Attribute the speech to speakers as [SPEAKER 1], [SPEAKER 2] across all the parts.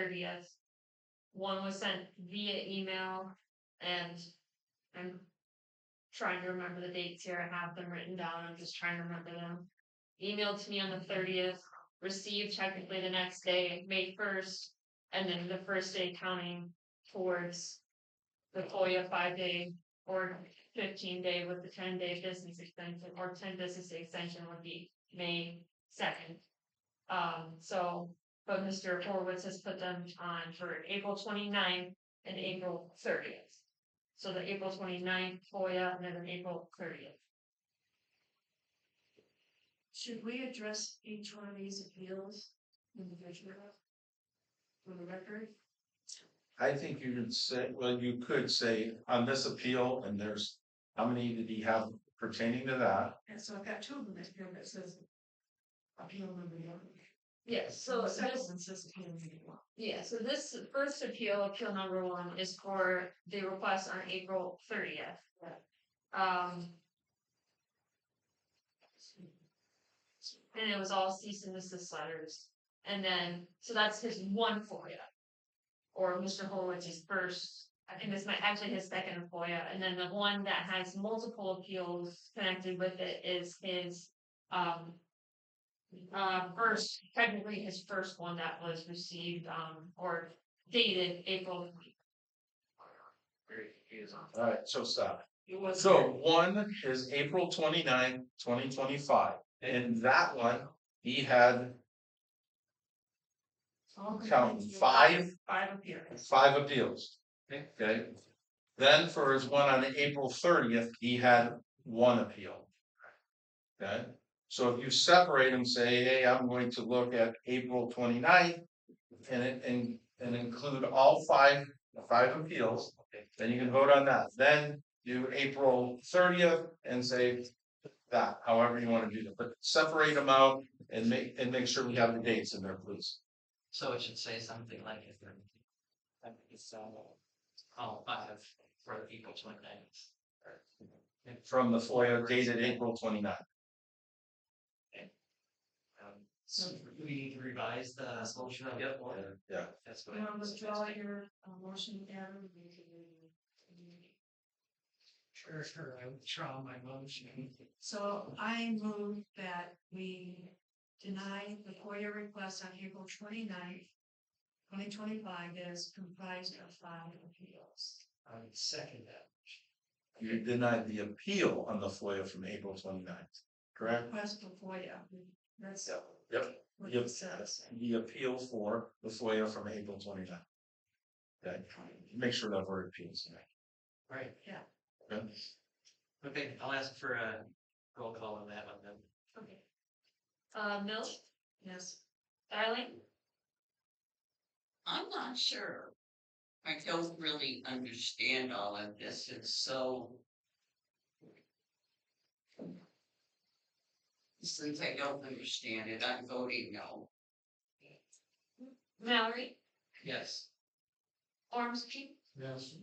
[SPEAKER 1] thirtieth. One was sent via email and I'm trying to remember the dates here. I have them written down. I'm just trying to remember them. Emailed to me on the thirtieth, received technically the next day, May first, and then the first day counting towards the FOIA five day or fifteen day with the ten day business extension or ten business day extension would be May second. Um, so, but Mr. Horowitz has put them on for April 29th and April thirtieth. So the April 29th FOIA and then an April thirtieth.
[SPEAKER 2] Should we address each one of these appeals individually? For the record?
[SPEAKER 3] I think you could say, well, you could say on this appeal, and there's, how many did he have pertaining to that?
[SPEAKER 2] And so I've got two of them that appeal that says appeal number one.
[SPEAKER 1] Yes, so
[SPEAKER 2] The
[SPEAKER 1] this
[SPEAKER 2] Second one says appeal number one.
[SPEAKER 1] Yeah, so this first appeal, appeal number one, is for the request on April thirtieth. Um. And it was all cease and desist letters, and then, so that's his one FOIA. Or Mr. Horowitz's first, I think this might actually his second FOIA, and then the one that has multiple appeals connected with it is his, um, uh, first, technically his first one that was received, um, or dated April.
[SPEAKER 3] Alright, so stop.
[SPEAKER 2] It was.
[SPEAKER 3] So one is April 29th, 2025, and that one, he had
[SPEAKER 2] All
[SPEAKER 3] Count
[SPEAKER 2] complaints,
[SPEAKER 3] five.
[SPEAKER 2] Five appeals.
[SPEAKER 3] five appeals. Okay, then for his one on April thirtieth, he had one appeal. Okay, so if you separate them, say, hey, I'm going to look at April 29th And it, and, and include all five, the five appeals, then you can vote on that, then do April thirtieth and say. That, however you wanna do that, but separate them out and make, and make sure we have the dates in there, please.
[SPEAKER 4] So it should say something like if they're. I think it's, uh, oh, I have for April twenty ninth.
[SPEAKER 3] From the FOIA dated April 29th.
[SPEAKER 4] So we need to revise the motion on that one.
[SPEAKER 3] Yeah.
[SPEAKER 4] That's
[SPEAKER 2] You
[SPEAKER 4] what.
[SPEAKER 2] want to withdraw your uh, motion, Adam? You can-
[SPEAKER 4] Sure, sure, I withdraw my motion.
[SPEAKER 2] So I move that we deny the FOIA request on April 29th, twenty twenty-five, that is comprised of five appeals.
[SPEAKER 4] I would second that.
[SPEAKER 3] You denied the appeal on the FOIA from April 29th, correct?
[SPEAKER 2] Request for FOIA, that's
[SPEAKER 3] Yep.
[SPEAKER 2] what
[SPEAKER 3] Yep.
[SPEAKER 2] it says.
[SPEAKER 3] The appeal for the FOIA from April 29th. Okay, make sure that word appeals. in there.
[SPEAKER 4] Right,
[SPEAKER 3] Okay?
[SPEAKER 4] okay, I'll ask for a roll call on that one then.
[SPEAKER 1] Okay. Uh, Mills,
[SPEAKER 2] Yes,
[SPEAKER 1] Darling?
[SPEAKER 5] I'm not sure. I don't really understand all of this, it's so. Since I don't understand it, I'm voting no.
[SPEAKER 1] Mallory,
[SPEAKER 4] Yes.
[SPEAKER 1] Ormski,
[SPEAKER 4] Yes.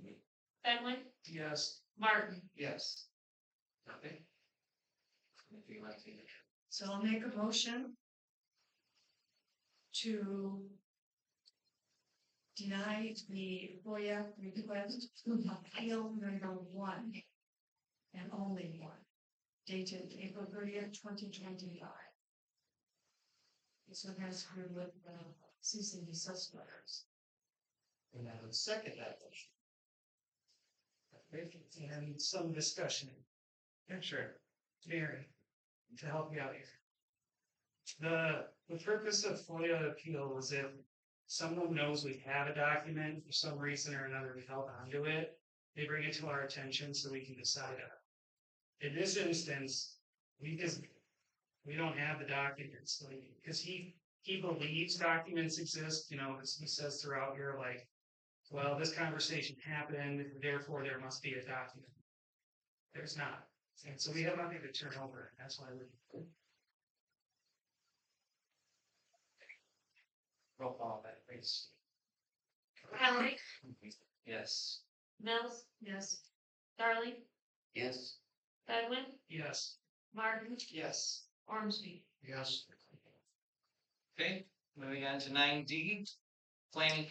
[SPEAKER 1] Fenway,
[SPEAKER 4] Yes.
[SPEAKER 1] Martin.
[SPEAKER 4] Yes. Okay. If you like to.
[SPEAKER 2] so I'll make a motion to deny the FOIA request appeal number one and only one, dated April thirtieth, twenty twenty-five. This one has to do with uh, cease and desist letters.
[SPEAKER 4] And I would second that motion. Okay, And some discussion. Yeah, sure. Mary, to help me out here. The, the purpose of FOIA appeal is if someone knows we have a document for some reason or another, we held onto it, they bring it to our attention so we can decide on it. In this instance, we just, we don't have the documents, like, because he, he believes documents exist, you know, as he says throughout here, like, well, this conversation happened, therefore there must be a document. There's not, and so we have nothing to turn over, and that's why we. Roll call that, please.
[SPEAKER 1] Mallory,
[SPEAKER 4] Yes.
[SPEAKER 1] Mills,
[SPEAKER 2] Yes,
[SPEAKER 1] Darling,
[SPEAKER 5] Yes,
[SPEAKER 1] Fenway,
[SPEAKER 4] Yes.
[SPEAKER 1] Martin,
[SPEAKER 4] Yes.
[SPEAKER 1] Ormski.
[SPEAKER 4] Yes. Okay, moving on to nine D.
[SPEAKER 5] planning